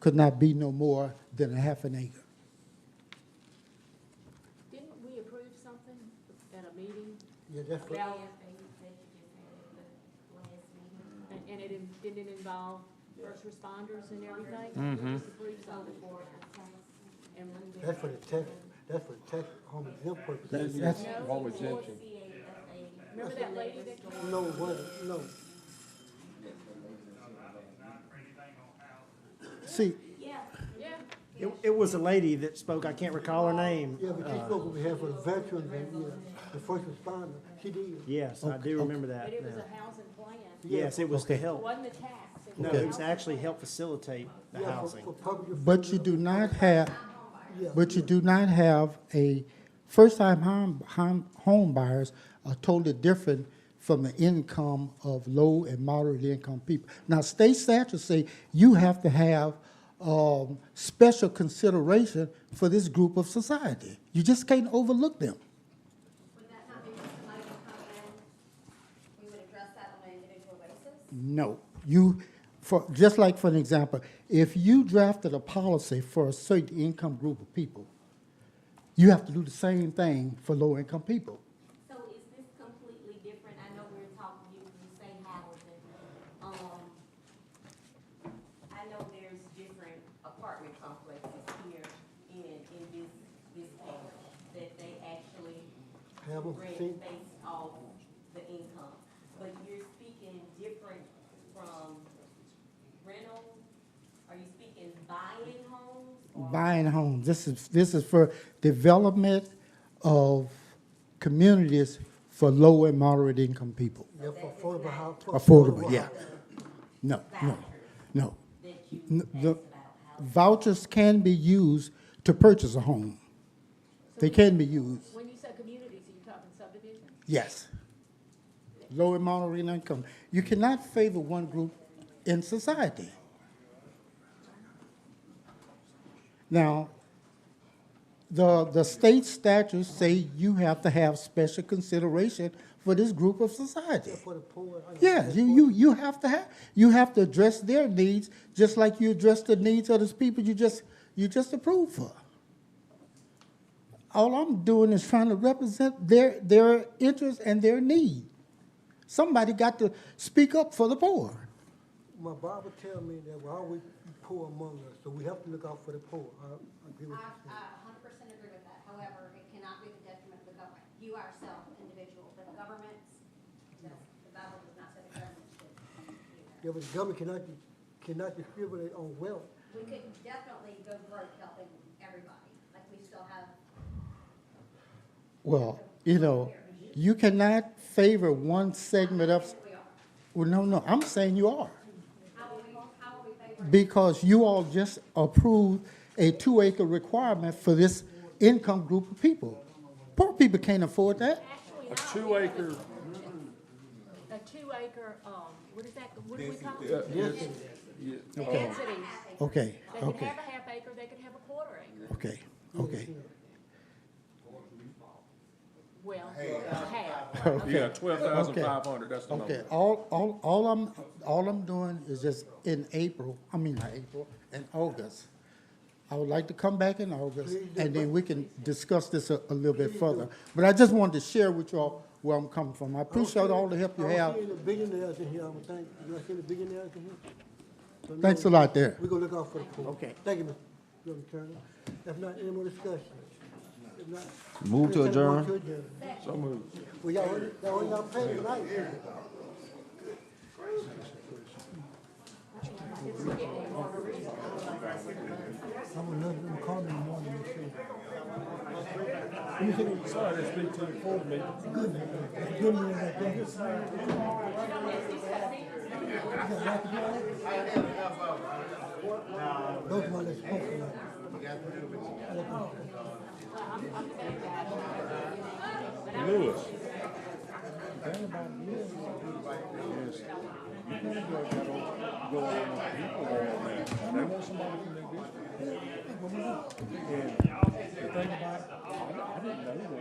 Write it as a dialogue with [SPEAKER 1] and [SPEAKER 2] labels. [SPEAKER 1] could not be no more than a half an acre.
[SPEAKER 2] Didn't we approve something at a meeting?
[SPEAKER 1] Yeah, that's
[SPEAKER 2] what-
[SPEAKER 3] Yeah, they, they just had it the last meeting.
[SPEAKER 2] And, and it in- didn't it involve first responders and everything?
[SPEAKER 4] Mhm.
[SPEAKER 2] We just approved something for it. And we-
[SPEAKER 5] That's for the tax, that's for the tax, home exempt purposes.
[SPEAKER 1] That's,
[SPEAKER 4] Home exemption.
[SPEAKER 2] Remember that lady that came?
[SPEAKER 5] No, what, no.
[SPEAKER 1] see,
[SPEAKER 3] Yeah,
[SPEAKER 2] Yeah,
[SPEAKER 6] It, it was a lady that spoke, I can't recall her name.
[SPEAKER 5] Yeah, but she spoke on behalf of the veterans and, yeah, the first responder. She did.
[SPEAKER 6] Yes, I do remember
[SPEAKER 2] but
[SPEAKER 6] that
[SPEAKER 2] it was
[SPEAKER 6] now.
[SPEAKER 2] a housing plan.
[SPEAKER 6] Yes, it was to
[SPEAKER 1] Okay.
[SPEAKER 2] It
[SPEAKER 6] help,
[SPEAKER 2] wasn't a tax. it was
[SPEAKER 6] no,
[SPEAKER 2] a
[SPEAKER 6] it was
[SPEAKER 2] housing
[SPEAKER 6] to actually
[SPEAKER 2] plan.
[SPEAKER 6] help facilitate the
[SPEAKER 5] Yeah, for,
[SPEAKER 6] housing.
[SPEAKER 5] for public.
[SPEAKER 1] but you do not have,
[SPEAKER 5] Yeah.
[SPEAKER 1] but you do not have a, first-time home, home, home buyers are totally different from the income of low and moderate income people. Now, state statutes say you have to have, um, special consideration for this group of society. You just can't overlook them.
[SPEAKER 7] Would that not be somebody would come in, we would address that on an individual basis?
[SPEAKER 1] No. You, for, just like for an example, if you drafted a policy for a certain income group of people, you have to do the same thing for low-income people.
[SPEAKER 3] so is this completely different? I know we're talking, you, you say housing, um, I know there's different apartment complexes here in, in this, this area, that they actually
[SPEAKER 5] Have them
[SPEAKER 3] rent
[SPEAKER 5] seen,
[SPEAKER 3] based off the income. But you're speaking different from rental, are you speaking buying homes? or-
[SPEAKER 1] Buying homes, this is, this is for development of communities for low and moderate income people.
[SPEAKER 5] yeah, for affordable house.
[SPEAKER 1] Affordable, yeah. No, no, no.
[SPEAKER 3] That you
[SPEAKER 1] N-
[SPEAKER 3] asked
[SPEAKER 1] the-
[SPEAKER 3] about housing.
[SPEAKER 1] Vouchers can be used to purchase a home. They can be used.
[SPEAKER 2] When you say communities, are you talking subdivisions?
[SPEAKER 1] Yes. Low and moderate income. You cannot favor one group in society. Now, the, the state statutes say you have to have special consideration for this group of society.
[SPEAKER 5] Yeah, for the poor. I know,
[SPEAKER 1] Yeah,
[SPEAKER 5] that's
[SPEAKER 1] you,
[SPEAKER 5] for-
[SPEAKER 1] you, you have to have, you have to address their needs, just like you address the needs of those people you just, you just approved for. All I'm doing is trying to represent their, their interests and their need. Somebody got to speak up for the poor.
[SPEAKER 5] My Bible tell me that we're always poor among us, so we have to look out for the poor. I I agree with
[SPEAKER 7] I,
[SPEAKER 5] you.
[SPEAKER 7] I a hundred percent agree with that, however, it cannot be the detriment of the government, you ourselves, individual, but governments, that's, the Bible does not say the government should. do that.
[SPEAKER 5] Yeah, but the government cannot, cannot distribute on wealth.
[SPEAKER 7] We could definitely go broke helping everybody, like we still have,
[SPEAKER 1] Well, you know, you cannot favor one segment of,
[SPEAKER 7] we are,
[SPEAKER 1] well, no, no, I'm saying you are.
[SPEAKER 7] how will we, how will we favor?
[SPEAKER 1] Because you all just approved a two acre requirement for this income group of people. Poor people can't afford that.
[SPEAKER 2] Actually,
[SPEAKER 4] A
[SPEAKER 2] not.
[SPEAKER 4] two acre,
[SPEAKER 2] A two acre, um, what is that, what do we call
[SPEAKER 4] uh,
[SPEAKER 2] it?
[SPEAKER 4] yes, yeah, okay.
[SPEAKER 2] Densities.
[SPEAKER 1] Okay,
[SPEAKER 2] They could
[SPEAKER 1] okay,
[SPEAKER 2] have a half acre, they could have a quarter acre.
[SPEAKER 1] okay, okay.
[SPEAKER 2] Well, a half.
[SPEAKER 4] yeah, twelve thousand
[SPEAKER 1] Okay.
[SPEAKER 4] five hundred, that's the
[SPEAKER 1] Okay,
[SPEAKER 4] number.
[SPEAKER 1] all, all, all I'm, all I'm doing is just in April, I mean, not April, in August. I would like to come back in August, and then we can discuss this a, a little bit further. But I just wanted to share with y'all where I'm coming from. I appreciate all the help you
[SPEAKER 5] I
[SPEAKER 1] have.
[SPEAKER 5] don't see any billionaires in here, I would think. You don't see any billionaires in here? So, no,
[SPEAKER 1] Thanks a lot there.
[SPEAKER 5] We're gonna look out for the poor.
[SPEAKER 1] Okay.
[SPEAKER 5] Thank you, Mr. Governor Turner. If not, any more discussion? If not.
[SPEAKER 8] Move to
[SPEAKER 5] entertain a motion
[SPEAKER 8] adjourn.
[SPEAKER 4] So moved.
[SPEAKER 5] Well, y'all, already- y'all, already got paid tonight. I'm gonna let them call me in the morning and say,
[SPEAKER 4] Sorry to speak to you for me.
[SPEAKER 5] give me that thing. Those are my last hopes tonight.
[SPEAKER 4] Lewis.